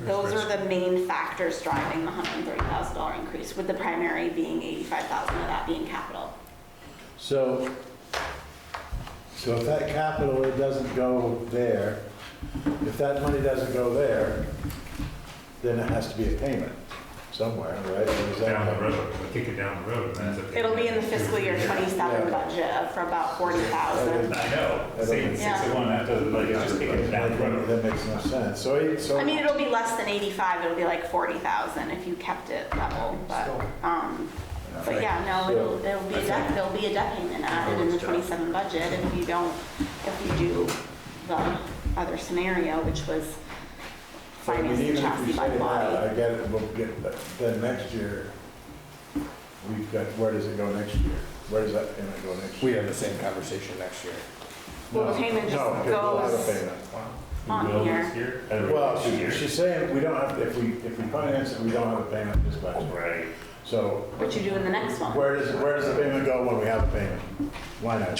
Those are the main factors driving the hundred and thirty thousand dollar increase, with the primary being eighty-five thousand of that being capital. So, so if that capital, it doesn't go there, if that money doesn't go there, then it has to be a payment somewhere, right? Or is that- Down the road, we'll kick it down the road, and that's a. It'll be in the fiscal year twenty-seven Yeah. budget of for about forty thousand. I know, see, six to one, that doesn't, like, it's just kicking it down the road. That makes no sense. So, it- so. I mean, it'll be less than eighty-five, it'll be like forty thousand if you kept it level, but, um, but yeah, no, it'll, it'll be a debt, there'll be a debt payment added in the twenty-seven budget if you don't, if you do the other scenario, which was I mean, financing even if chassis you by say that, body. I get it, we'll get, but then next year, we've got, where does it go next year? Where does that payment go next We year? have the same conversation next year. Well, the payment No, just because we'll have a goes- payment. On We will here. this year, and we will Well, this year. she- she's saying, we don't have, if we, if we finance it, we don't have a payment this budget. Right, So What you do in the next one. where does, where does the payment go when we have a payment? Why not?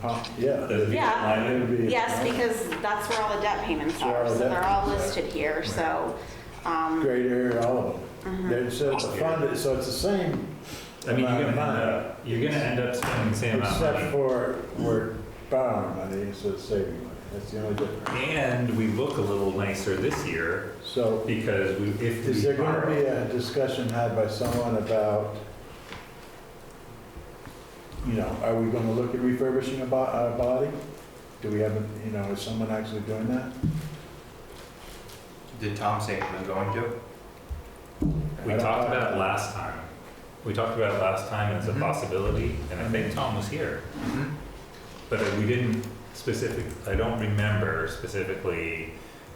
Huh, yeah. does Mm. it Yeah. line It'd item? be- Yes, because that's where all the debt payments Where all are, the so debt they're all payments are. listed here, so, um, Greater, all of them. They're- So it's a fund, so it's the same I mean, you're amount gonna of end money, up, you're gonna end up spending the same amount of except money. for we're borrowing money, so it's saving money. That's the only difference. And we look a little nicer this year So because we, if Is we there going to borrow. be a discussion had by someone about, you know, are we going to look at refurbishing a bo- a body? Do we have, a- you know, is someone actually doing that? Did Tom say he was going to? We talked about it last time. We talked about it last time as a Mhm. possibility, and I think Tom was here. Mm-hmm. But we didn't specific, I don't remember specifically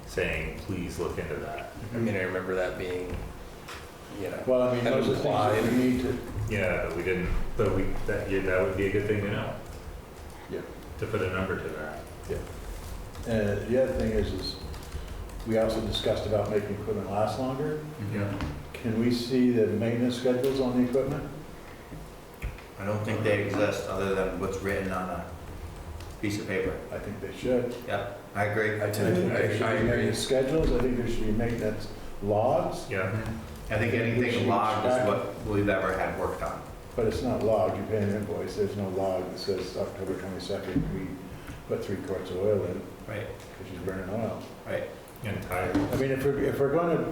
saying, please look into that. I mean, I remember that being, you know, Well, I mean, those are things that we need to, Yeah, but we didn't, but we, that, yeah, that would be a good thing to know. Yeah. To put a number to that. uh, the other thing is, is we also discussed about making equipment last longer. Yeah. Can we see the maintenance schedules on the equipment? I don't think they exist other than what's written on a piece of paper. I think they should. Yep, I agree. I I think tend there to, I- I should be agree. maintenance schedules, I think there should be maintenance logs, Yeah, Mhm. I think anything logged is what we've ever had worked on. But it's not logged, you pay an invoice, there's no log that says October 22nd, we put three quarts of oil in, Right, because she's burning oil. right. and tired. I mean, if we're, if we're gonna,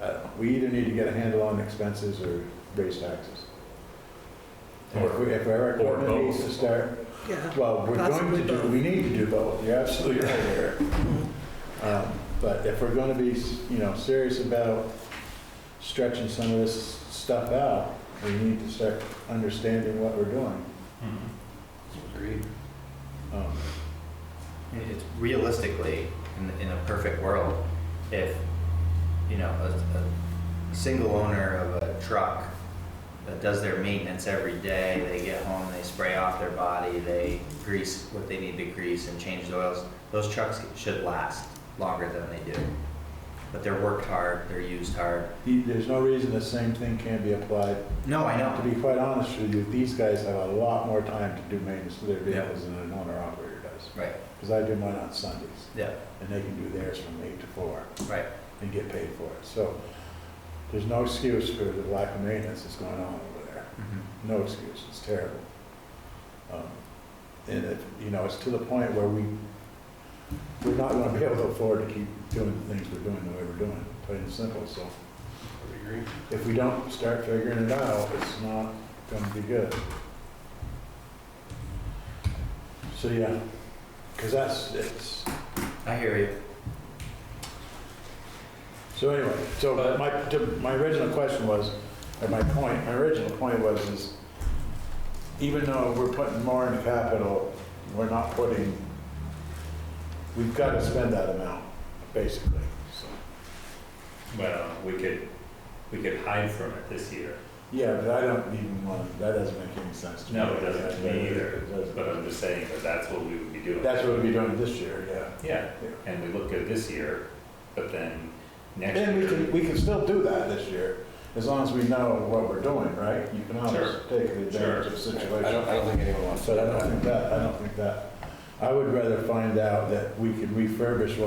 I don't know, we either need to get a handle on expenses or raise taxes. And if we- if our Or- or equipment needs both. to start, Yeah, well, we're Possibly going to do, both. we need to do both, you're absolutely right there. Um, But if we're gonna be, you know, serious about stretching some of this stuff out, we need to start understanding what we're doing. Mhm. Agreed. Um, It's realistically, in, in a perfect world, if, you know, a, a single owner of a truck that does their maintenance every day, they get home, they spray off their body, they grease what they need to grease and change the oils, those trucks should last longer than they do. But they're worked hard, they're used hard. the- There's no reason the same thing can't be applied. No, I To be quite honest with you, these guys have a lot more time to do maintenance to their Yeah. vehicles than an owner operator does. Right, Because I do mine on Sundays, yeah, and they can do theirs from eight to four right. and get paid for it. So there's no excuse for the lack of maintenance that's going on over there. Mm-hmm. No excuse, it's terrible. Um, And it, you know, it's to the point where we, we're not gonna be able to afford to keep doing the things we're doing the way we're doing, plain and simple, so. If we don't start figuring it out, it's not gonna be good. So, yeah, because that's, it's, I hear you. so anyway, so my, to- my original question was, or my point, my original point was is, even though we're putting more in capital, we're not putting, we've got to spend that amount, basically, so. Well, we could, we could hide from it this year, Yeah, but I don't even want, that doesn't make any sense to me. No, it doesn't to me either, It doesn't. but I'm just saying that that's what we would be doing. That's what we'll be doing this year, yeah. Yeah, and we look good this year, but then next And we can, year. we can still do that this year, as long as we know what we're doing, right? You can always Sure. take advantage of I situations. don't, I don't think anyone wants to. But I don't think that, I don't think that, I would rather find out that we can refurbish